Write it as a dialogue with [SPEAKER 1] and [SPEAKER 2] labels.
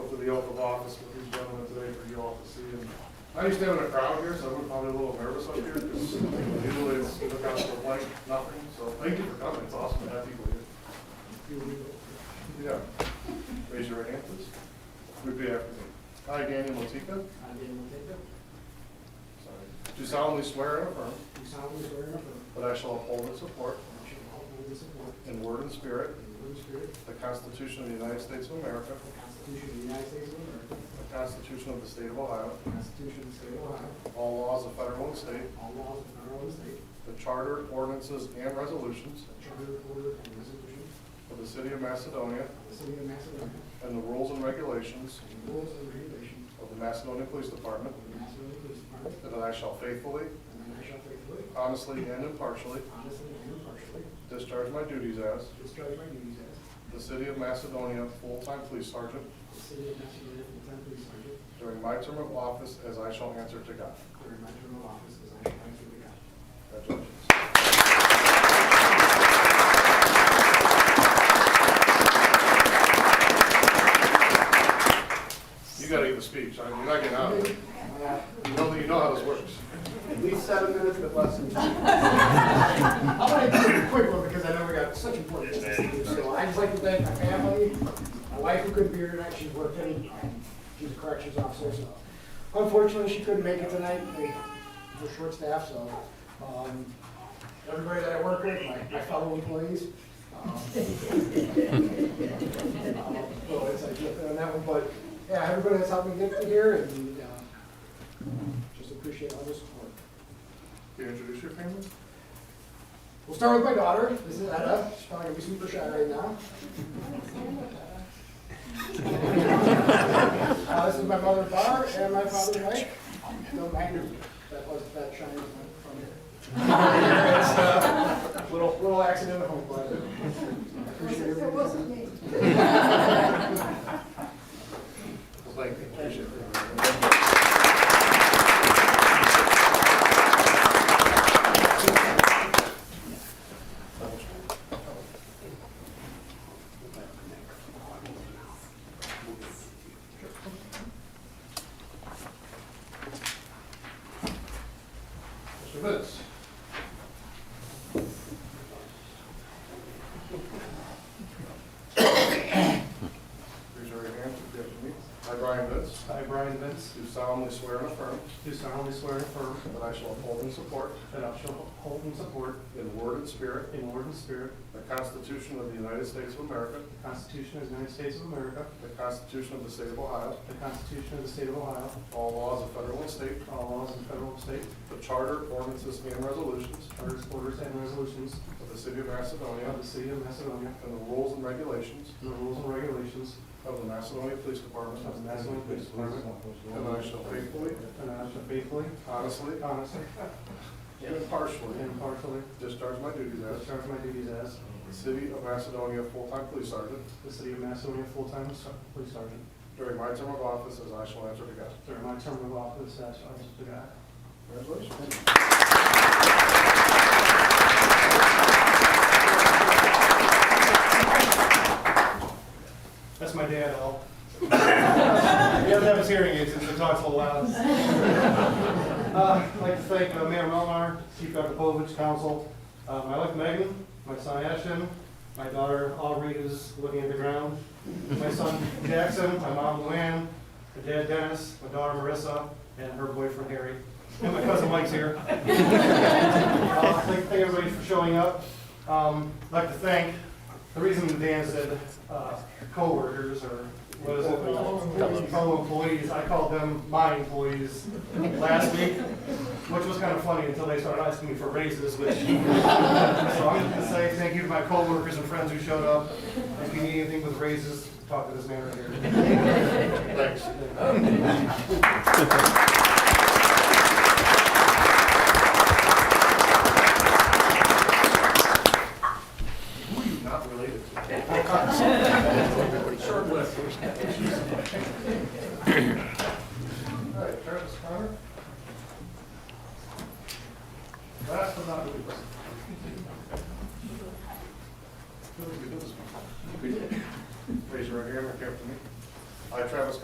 [SPEAKER 1] the oath of office with these gentlemen today for you all to see. And I used to have a crowd here, so I'm probably a little nervous up here because usually it's look out for blank, nothing. So thank you for coming. It's awesome to have people here. Yeah. Raise your right hand, please. Repeat after me. I, Daniel Matika,
[SPEAKER 2] I, Daniel Jacob,
[SPEAKER 1] do solemnly swear and affirm
[SPEAKER 2] do solemnly swear and affirm
[SPEAKER 1] that I shall uphold and support
[SPEAKER 2] that I shall uphold and support
[SPEAKER 1] in word and spirit
[SPEAKER 2] in good spirit
[SPEAKER 1] the Constitution of the United States of America,
[SPEAKER 2] the Constitution of the United States of America,
[SPEAKER 1] the Constitution of the State of Ohio,
[SPEAKER 2] the Constitution of the State of Ohio,
[SPEAKER 1] all laws of federal and state,
[SPEAKER 2] all laws of the federal and state,
[SPEAKER 1] The charter, ordinances, and resolutions
[SPEAKER 2] the charter, order, and resolutions
[SPEAKER 1] of the City of Macedonia
[SPEAKER 2] of the city of Macedonia,
[SPEAKER 1] and the rules and regulations
[SPEAKER 2] and the rules and regulations
[SPEAKER 1] of the Macedonia Police Department,
[SPEAKER 2] of the Macedonia Police Department,
[SPEAKER 1] and that I shall faithfully,
[SPEAKER 2] and that I shall faithfully,
[SPEAKER 1] honestly, and impartially
[SPEAKER 2] honestly, and impartially
[SPEAKER 1] discharge my duties as
[SPEAKER 2] discharge my duties as
[SPEAKER 1] the City of Macedonia full-time police sergeant
[SPEAKER 2] the city of Macedonia full-time police sergeant
[SPEAKER 1] during my term of office as I shall answer to God.
[SPEAKER 2] during my term of office as I shall answer to God.
[SPEAKER 1] Congratulations. You gotta give a speech. I mean, You're not getting out of it. You know, you know how this works.
[SPEAKER 2] At least seven minutes, but less than two. I'm gonna do a quick one because I know we got such important business to do. So I'd just like to thank my family, my wife who couldn't be here tonight, she's working, um, she's a corrections officer, so. Unfortunately, she couldn't make it tonight, we we're short staffed, so. um, Everybody that I work with, my my fellow employees. um, um, Well, it's like, yeah, on that one, but, yeah, everybody that's helped me get to here, and, uh, just appreciate all the support.
[SPEAKER 1] Can you introduce your family?
[SPEAKER 2] We'll start with my daughter, this is Etta, she's probably gonna be super shy right now. Uh, this is my mother Barb, and my father Mike, don't mind her, that was, that shine was from here. It's, uh, Little, little accident at home, but I appreciate
[SPEAKER 3] It
[SPEAKER 2] everybody's-
[SPEAKER 3] wasn't me.
[SPEAKER 1] Thank you. Appreciate it. Mr. Vince. Raise your right hand, repeat after me. I, Brian Vince,
[SPEAKER 4] I, Brian Vince,
[SPEAKER 1] do solemnly swear and affirm
[SPEAKER 4] do solemnly swear and affirm
[SPEAKER 1] that I shall uphold and support
[SPEAKER 4] that I shall uphold and support
[SPEAKER 1] in word and spirit
[SPEAKER 4] in word and spirit
[SPEAKER 1] the Constitution of the United States of America,
[SPEAKER 4] the Constitution of the United States of America,
[SPEAKER 1] the Constitution of the State of Ohio,
[SPEAKER 4] the Constitution of the State of Ohio,
[SPEAKER 1] all laws of federal and state,
[SPEAKER 4] all laws of the federal and state,
[SPEAKER 1] the charter, ordinances, and resolutions
[SPEAKER 4] charters, orders, and resolutions
[SPEAKER 1] of the City of Macedonia,
[SPEAKER 4] of the City of Macedonia,
[SPEAKER 1] and the rules and regulations
[SPEAKER 4] and the rules and regulations
[SPEAKER 1] of the Macedonia Police Department,
[SPEAKER 4] of the Macedonia Police Department,
[SPEAKER 1] and that I shall faithfully,
[SPEAKER 4] and that I shall faithfully,
[SPEAKER 1] honestly,
[SPEAKER 4] honestly,
[SPEAKER 1] and impartially
[SPEAKER 4] and impartially
[SPEAKER 1] discharge my duties as
[SPEAKER 4] discharge my duties as
[SPEAKER 1] the City of Macedonia full-time police sergeant
[SPEAKER 4] the City of Macedonia full-time police sergeant
[SPEAKER 1] during my term of office as I shall answer to God.
[SPEAKER 4] during my term of office as I shall to God.
[SPEAKER 1] Congratulations.
[SPEAKER 4] That's my dad, Al. He doesn't have his hearing aids, so he talks a little loud. Uh, I'd like to thank uh, Mayor Melnar, Chief Rakopovich, Council, uh, my wife Megan, my son Ashton, my daughter Aubrey who's living underground, my son Jackson, my mom Luann, my dad Dennis, my daughter Marissa, and her boyfriend Harry, and my cousin Mike's here. Uh, I'd like to thank everybody for showing up. Um, I'd like to thank, the reason Dan said uh, coworkers or what is it? Fellow employees, I called them my employees last week, which was kind of funny until they started asking me for raises, which, so I'm gonna say thank you to my coworkers and friends who showed up. If you need anything with raises, talk to this man right here. Thanks.